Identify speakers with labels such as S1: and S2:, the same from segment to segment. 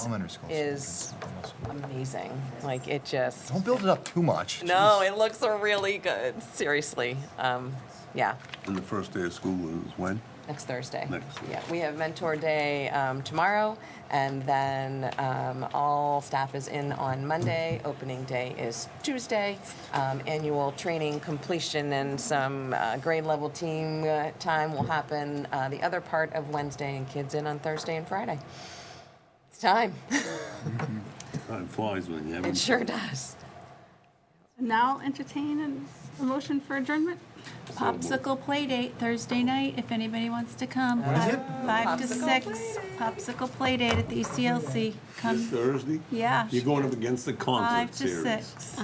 S1: Elementary school.
S2: is amazing. Like it just,
S1: Don't build it up too much.
S2: no,
S1: Jeez.
S2: it looks really good, seriously. Um, yeah,
S3: And the first day of school is when?
S2: next Thursday.
S3: Next Thursday.
S2: Yeah, we have mentor day um, tomorrow and then um, all staff is in on Monday. Opening day is Tuesday. Um, annual training completion and some uh, grade level team uh, time will happen uh, the other part of Wednesday and kids in on Thursday and Friday. It's time.
S3: Time flies when you have.
S2: It sure does.
S4: Now entertain an- a motion for adjournment?
S3: Popsicle
S5: Popsicle playdate Thursday night, if anybody wants to come.
S1: What is it?
S5: Five to
S2: Popsicle
S5: six, popsicle playdate at the E ECLC.
S3: This
S5: Come,
S3: Thursday?
S5: yeah,
S3: You're going up against the
S5: five
S3: concert
S5: to
S3: series.
S5: six.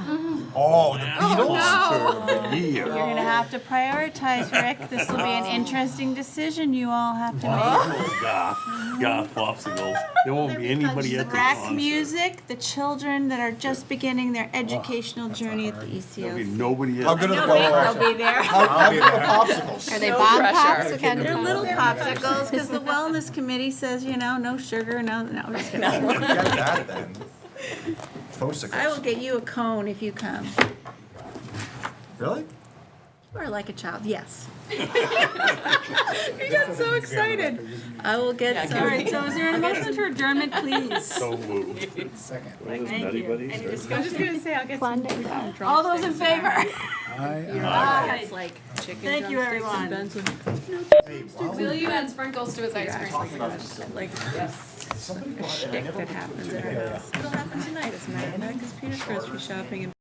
S1: Oh, the Beatles.
S3: Concert of the
S5: You're
S3: year.
S5: gonna have to prioritize, Rick. This will be an interesting decision you all have to make.
S3: Popsicle, Goth, goth popsicles. There won't be anybody at the
S5: Rack
S3: concert.
S5: music, the children that are just beginning their educational journey at the E
S3: There'll be
S5: ECLC.
S3: nobody
S1: How
S3: at.
S1: good are the
S5: They'll
S1: popsicles?
S5: be there.
S1: How good are the popsicles?
S5: Are they bomb
S2: pressure.
S5: popsicles? They're little popsicles, because the wellness committee says, you know, no sugar, no, no. I'm just kidding.
S1: Forget that then.
S5: I will
S1: Popsicles.
S5: get you a cone if you come.
S1: Really?
S5: You are like a child, yes. You got so excited. I will get
S4: All
S5: some.
S4: right, so is there a motion for adjournment, please?
S3: So moved.
S6: Second.
S5: Thank you. Any
S4: I'm
S5: discussion?
S4: just gonna say, I'll get some.
S5: All those in favor?
S4: Aye.
S5: Thank you, everyone.
S1: Hey, wow.
S4: Will you add sprinkles to his ice cream?
S1: Somebody bought it. I never-
S5: It'll happen tonight, as a matter of fact, because Peter Chris was shopping in